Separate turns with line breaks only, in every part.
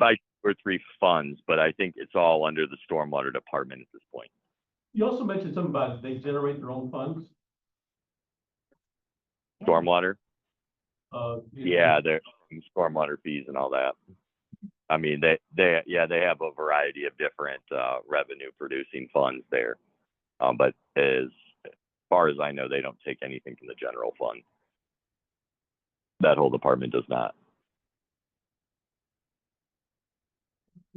by two or three funds, but I think it's all under the stormwater department at this point.
You also mentioned something about they generate their own funds.
Yeah.
Stormwater,
Uh, you-
yeah, they're stormwater fees and all that. I mean, they, they, yeah, they have a variety of different, uh, revenue producing funds there. Um, but as far as I know, they don't take anything from the general fund. That whole department does not.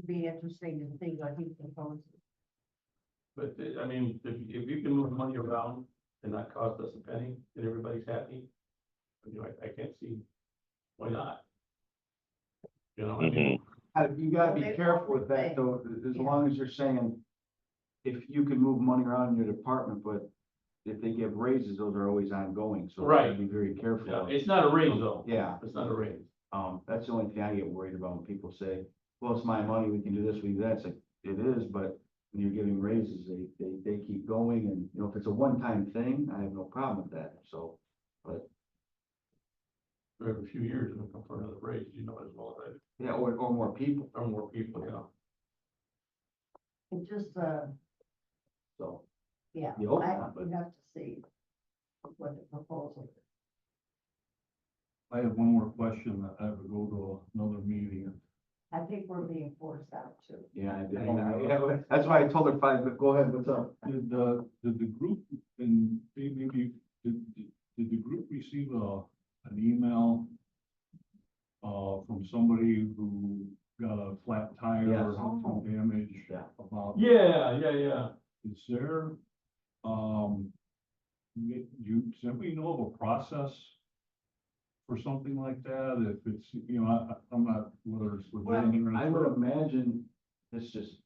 Be interesting to see what he proposes.
But uh, I mean, if, if you can move money around and not cost us a penny, and everybody's happy. You know, I, I can't see why not. You know, I
Mm-hmm.
mean,
Uh, you gotta be
They
careful
always
with that
say-
though, as- as
yeah.
long as you're saying. If you can move money around in your department, but if they give raises, those are always ongoing, so. you gotta
Right.
Be very
yeah,
careful.
it's not a raise though,
Yeah,
it's not a raise.
um, that's the only thing I get worried about when people say, well, it's my money, we can do this, we can do that. It's like, it is, but when you're giving raises, they, they, they keep going and, you know, if it's a one-time thing, I have no problem with that, so.
For a few years, it'll come for another raise, you know, as well as
Yeah, or, or more people,
I, or more people, you know.
It just, uh,
so.
yeah, I,
You hope not, but-
we have to see what the proposal. is.
I have one more question that I would go to another meeting.
I think we're being forced out too.
Yeah, I did.
I know.
Yeah, That's why I told her five, but go ahead, what's up?
Did the, did the group and maybe, did, did- did the group receive a, an email? Uh, from somebody who got a flat tire
Yes. Oh.
or some damage
Yeah.
about,
Yeah, yeah, yeah.
is there, um. Do you, does anybody know of a process? For something like that, if it's, you know, I, I- I'm not, whether it's within or.
I would imagine, it's just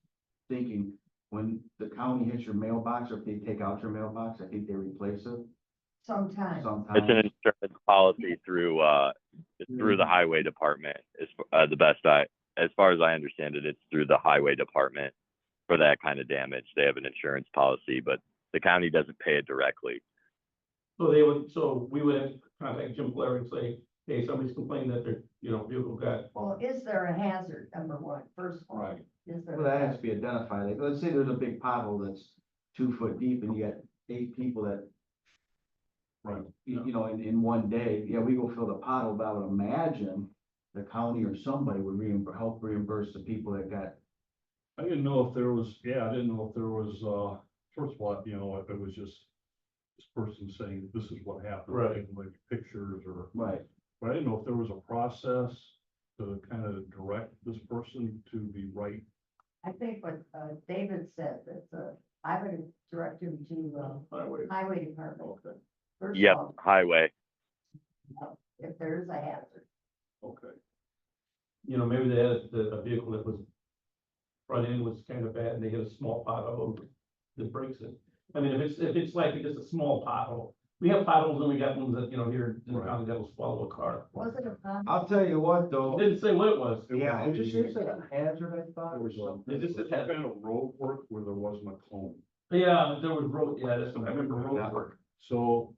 thinking, when the county hits your mailbox, or if they take out your mailbox, I think they replace it
Sometimes,
It's an
sometimes.
insurance policy through, uh, it's through the highway department, is, uh, the best I, as far as I understand it, it's through the highway department for that kind of damage. They have an insurance policy, but the county doesn't pay it directly.
So they would, so we would have to contact Jim Blair and say, hey, somebody's complaining that their, you know, vehicle got
well, is there a hazard, number one, first of all?
Right.
Is there?
Well,
a
that has
hazard?
to be identified, like, let's say there's a big pothole that's two foot deep, and you got eight people that,
Right.
you, you know, in, in one day, yeah, we go fill the pothole, but I would imagine the county or somebody would reimburse, help reimburse the people that got
I didn't know if there was, yeah, I didn't know if there was, uh, first of all, you know, if it was just this person saying, this is what happened.
Right.
taking, Like pictures or,
Right,
but I didn't know if there was a process to kind of direct this person to the right.
I think what, uh, David said, that, uh, I would direct him to,
highway.
uh, highway department.
Okay,
First
Yep,
of all,
highway.
if there is a hazard,
okay. You know, maybe they had the, a vehicle that was front end was kind of bad and they hit a small pothole that breaks it. I mean, if it's, if it's like just a small pothole, we have potholes and we got ones that, you know, here in the
Right.
county that will swallow a car.
was it a problem?
I'll tell you what, though.
Didn't say what it was.
Yeah, it just seems like a hazard, I thought,
There
or
was a,
something.
Is this the-
kind of road work where there wasn't a cone.
Yeah, there was road, yeah, that's, what I remember road work.
So,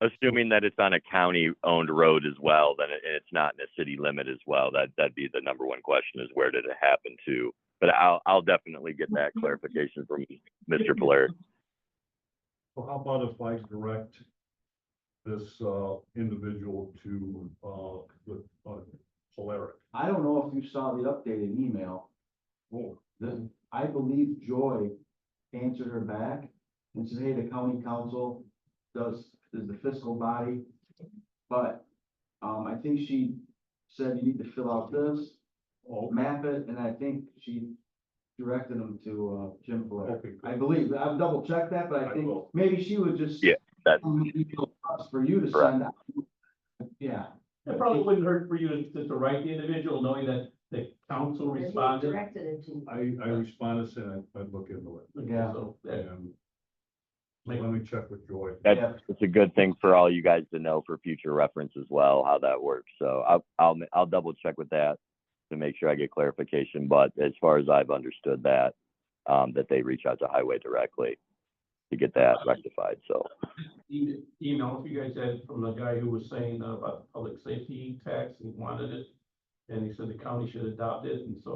Assuming that it's on a county-owned road as well, then it, it's not in a city limit as well. That, that'd be the number one question is where did it happen to? But I'll, I'll definitely get that clarification from Mr. Blair.
so how about if I direct this, uh, individual to, uh, the, uh, Polaric?
I don't know if you saw the updated email.
Oh.
The- I believe Joy answered her back and said, hey, the county council does, is the fiscal body. But, um, I think she said you need to fill out this,
Oh,
map it, and I think she directed them to, uh, Jim Blair.
okay,
I believe, I've double checked that, but
I
I think
will.
maybe she would just.
Yeah, that-
Email us For you to send out. Yeah.
It probably wouldn't hurt for you to, to write the individual, knowing that the council
If he
responded.
Directed it to.
I, I responded, said I'd, I'd look into it,
Okay,
Yeah.
So, yeah,
and let me check with Joy.
That-
Yeah.
It's a good thing for all you guys to know for future reference as well, how that works. So I'll, I'll, I'll double check with that to make sure I get clarification. But as far as I've understood that, um, that they reach out to highway directly to get that rectified. So,
e- email if you guys had from the guy who was saying about the public safety tax, he wanted it. And he said the county should adopt it, and so